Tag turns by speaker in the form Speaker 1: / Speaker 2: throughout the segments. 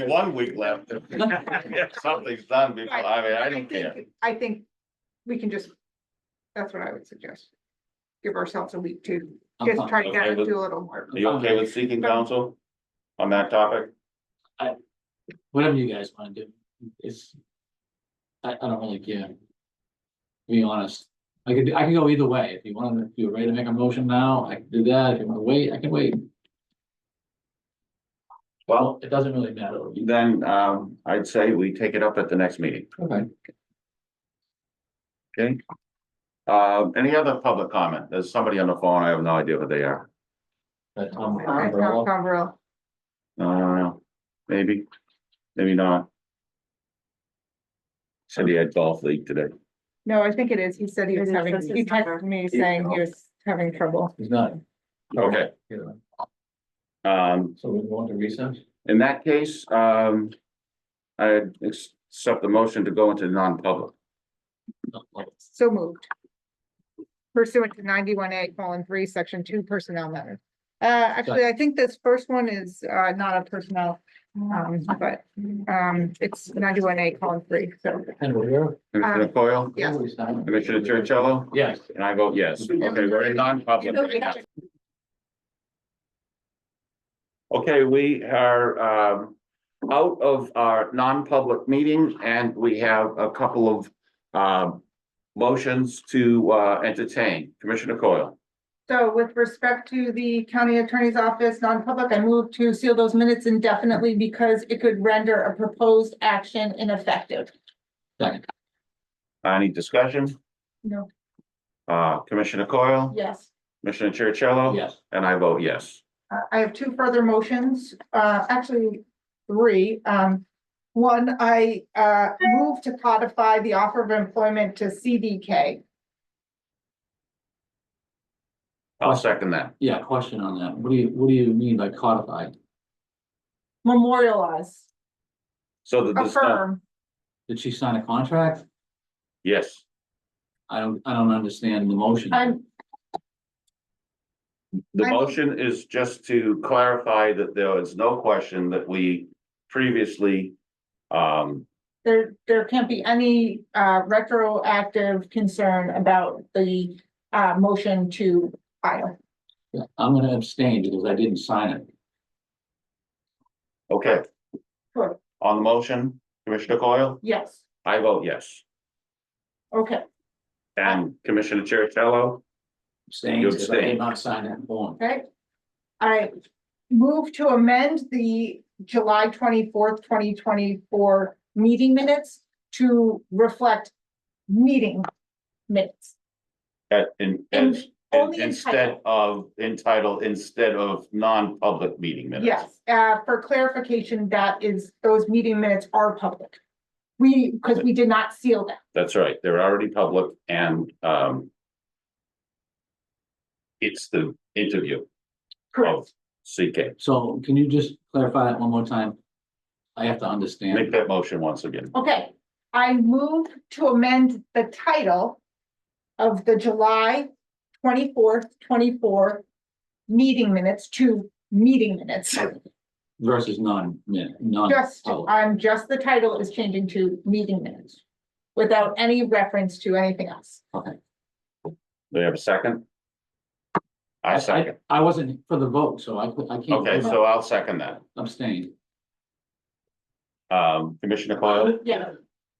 Speaker 1: be one week left. if Something's done before, I mean, I don't care.
Speaker 2: think- I think we can just, that's what I would suggest. Give ourselves a week to
Speaker 3: I'm
Speaker 2: just
Speaker 3: fine.
Speaker 2: try to get
Speaker 1: Okay,
Speaker 2: it
Speaker 1: but-
Speaker 2: to a little more.
Speaker 3: I'm
Speaker 1: Are you
Speaker 3: fine.
Speaker 1: okay with seeking counsel on that topic?
Speaker 3: Whatever you guys wanna do, it's. I, I don't really care. To Be honest, I could, I can go either way, if you wanna, if you're ready to make a motion now, I can do that, if you wanna wait, I can wait,
Speaker 1: Well,
Speaker 3: well, it doesn't really matter.
Speaker 1: then, um, I'd say we take it up at the next meeting.
Speaker 3: Okay.
Speaker 1: Uh, any other public comment? There's somebody on the phone. I have no idea who they are.
Speaker 3: But, um,
Speaker 2: Alright, Tom
Speaker 3: overall,
Speaker 2: Coverell.
Speaker 1: No, no, no. Uh, Maybe, maybe not. Said he had golf league today.
Speaker 2: No, I think it is. He said he was
Speaker 4: It is,
Speaker 2: having,
Speaker 4: this is
Speaker 2: he texted me saying he was having trouble.
Speaker 3: It's not.
Speaker 1: Okay.
Speaker 3: You know,
Speaker 1: Um,
Speaker 3: So we want to recess?
Speaker 1: in that case, um, I accept the motion to go into non-public.
Speaker 3: No, well,
Speaker 2: So moved. Pursuant to ninety-one A, colon three, section two, personnel matter. Uh, actually, I think this first one is, uh, not a personnel, um, but, um, it's ninety-one A, colon three, so.
Speaker 3: And we're here.
Speaker 1: Commissioner
Speaker 2: Um,
Speaker 1: Coyle,
Speaker 2: Yes.
Speaker 3: Nobody's done.
Speaker 1: Commissioner Chercello,
Speaker 3: Yes.
Speaker 1: and I vote yes. Okay, we're in non-public. Okay, we are um out of our non-public meeting and we have a couple of um motions to uh entertain. Commissioner Coyle,
Speaker 2: So with respect to the county attorney's office, non-public, I move to seal those minutes indefinitely because it could render a proposed action ineffective.
Speaker 1: any discussion?
Speaker 2: No,
Speaker 1: Uh, Commissioner Coyle,
Speaker 2: yes.
Speaker 1: Commissioner Chercello?
Speaker 3: Yes.
Speaker 1: And I vote yes.
Speaker 2: Uh, I have two further motions, uh, actually three. Um, one, I, uh, move to codify the offer of employment to CDK.
Speaker 1: I'll second that.
Speaker 3: Yeah, question on that, what do you, what do you mean by codified?
Speaker 2: Memorialize,
Speaker 1: So that there's no,
Speaker 2: affirm,
Speaker 3: Did she sign a contract?
Speaker 1: yes,
Speaker 3: I don't, I don't understand the motion.
Speaker 2: I'm,
Speaker 1: the
Speaker 2: I-
Speaker 1: motion is just to clarify that there is no question that we previously um
Speaker 2: there, there can't be any, uh, retroactive concern about the, uh, motion to file.
Speaker 3: Yeah, I'm gonna abstain because I didn't sign it.
Speaker 1: Okay.
Speaker 2: Sure.
Speaker 1: On the motion, Commissioner Coyle,
Speaker 2: Yes,
Speaker 1: I vote yes.
Speaker 2: okay,
Speaker 1: And Commissioner Chercello,
Speaker 3: Abstain
Speaker 1: You
Speaker 3: because I did
Speaker 1: abstained.
Speaker 3: not sign that form.
Speaker 2: okay. I move to amend the July twenty-fourth, twenty twenty-four meeting minutes to reflect meeting minutes.
Speaker 1: at, in,
Speaker 2: And
Speaker 1: in-
Speaker 2: only in
Speaker 1: instead
Speaker 2: title.
Speaker 1: of, entitled, instead of non-public meeting minutes.
Speaker 2: Yes, uh, for clarification, that is, those meeting minutes are public. We, because we did not seal them.
Speaker 1: That's right, they're already public and, um, it's the interview of CK.
Speaker 3: So can you just clarify that one more time? I have to
Speaker 1: Make
Speaker 3: understand.
Speaker 1: that motion once again.
Speaker 2: Okay, I move to amend the title of the July twenty-fourth, twenty-four meeting minutes to meeting minutes.
Speaker 3: Versus non, min- non.
Speaker 2: Just,
Speaker 3: oh,
Speaker 2: I'm just, the title is changing to meeting minutes without any reference to anything else.
Speaker 3: Okay.
Speaker 1: Do you have a second? I second.
Speaker 3: I wasn't for the vote, so I, cou- I can't.
Speaker 1: Okay, so I'll second that.
Speaker 3: Abstain.
Speaker 1: Um, Commissioner Coyle?
Speaker 2: Yeah.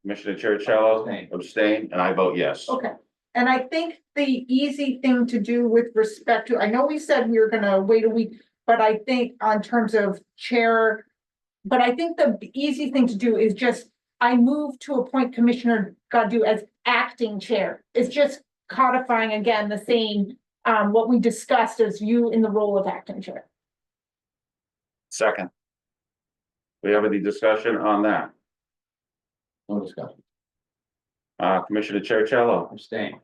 Speaker 1: Commissioner Chercello
Speaker 3: Abstain.
Speaker 1: abstain, and I vote yes.
Speaker 2: Okay, and I think the easy thing to do with respect to, I know we said we were gonna wait a week, but I think on terms of chair. But I think the easy thing to do is just, I move to appoint Commissioner Godu as acting chair. It's just codifying again the same, um, what we discussed as you in the role of acting chair.
Speaker 1: Second. We have any discussion on that?
Speaker 3: No discussion.
Speaker 1: Uh, Commissioner Chercello,
Speaker 3: Abstain.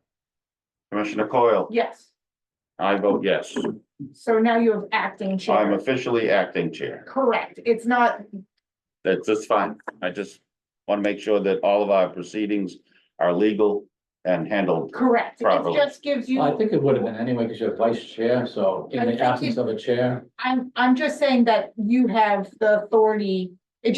Speaker 1: Commissioner Coyle,
Speaker 2: Yes,
Speaker 1: I vote yes.
Speaker 2: so now you have acting
Speaker 1: I'm
Speaker 2: chair.
Speaker 1: officially acting chair.
Speaker 2: Correct, it's not,
Speaker 1: That's just fine. I just want to make sure that all of our proceedings are legal and handled.
Speaker 2: correct, it
Speaker 1: Properly.
Speaker 2: just gives you.
Speaker 3: Well, I think it would have been anyway because you're vice chair, so in
Speaker 2: I
Speaker 3: the
Speaker 2: think
Speaker 3: absence of a chair,
Speaker 2: I'm, I'm just saying that you have the authority